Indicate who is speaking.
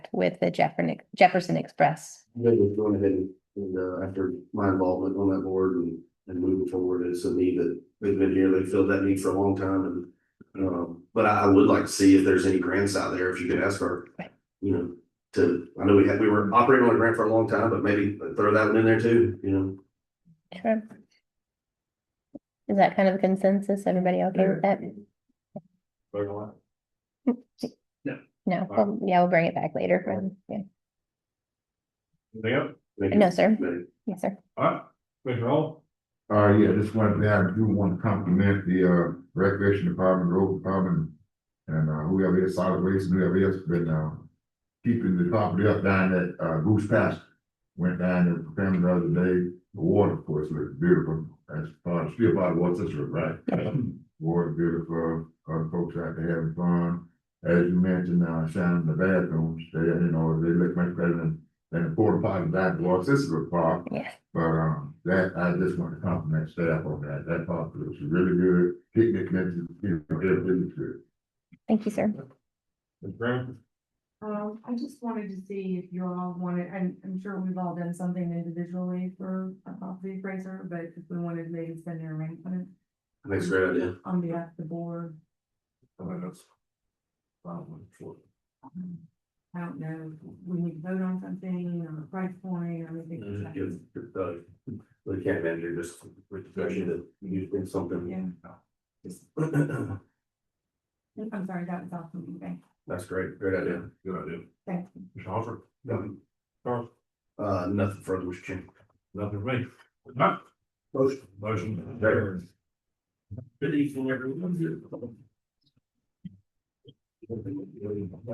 Speaker 1: with the Jefferson, Jefferson Express.
Speaker 2: You guys was going ahead and, and, uh, after my involvement on that board and, and moving forward, it's a need that they've been here, they filled that need for a long time and. Um, but I, I would like to see if there's any grants out there, if you could ask for,
Speaker 1: Right.
Speaker 2: you know, to, I know we had, we were operating on a grant for a long time, but maybe throw that one in there too, you know?
Speaker 1: Sure. Is that kind of a consensus? Everybody okay with that? No,
Speaker 2: All right.
Speaker 1: Well, yeah, we'll bring it back later. um, yeah.
Speaker 3: Yeah,
Speaker 2: Thank you.
Speaker 1: No, sir.
Speaker 2: Thank you.
Speaker 1: Yes, sir.
Speaker 3: all right, Commissioner Hall,
Speaker 4: Uh, yeah, just one thing, I do want to compliment the, uh, recreation department, road department, and, uh, whoever is solid waste, and whoever else been, uh, keeping the property up down at, uh, Goose Pasture. Went down there for family the other day, the water, of course, looked beautiful, that's, uh, still by the water system, right? Water beautiful, uh, folks out there having fun, as you mentioned, uh, shining the bathrooms, they, you know, they look much better than, than the porta potty down at the water system park.
Speaker 1: Yes.
Speaker 4: But um, that, I just want to compliment staff on that, that thought was really good, picnic, mentioned, you know, it was good.
Speaker 1: Thank you, sir.
Speaker 3: Ms. Brown,
Speaker 5: Um, I just wanted to see if you all wanted, I'm, I'm sure we've all done something individually for a property appraiser, but if we wanted to maybe send an arrangement
Speaker 2: That's a great idea.
Speaker 5: on behalf of the board, um, I don't know, we need to vote on something or a price point or anything. like
Speaker 2: Give,
Speaker 5: that.
Speaker 2: uh, the camp manager just, refresh that you think something.
Speaker 5: Yeah, just, I'm sorry, that was off me, thank,
Speaker 2: That's great, great idea.
Speaker 3: good idea,
Speaker 5: thank you.
Speaker 3: Mr. Hopper,
Speaker 2: Um,
Speaker 3: Charles,
Speaker 2: Uh, nothing further, Mr. Chairman.
Speaker 3: nothing for me. All right,
Speaker 2: Motion.
Speaker 3: Motion. carries. Good evening, everyone.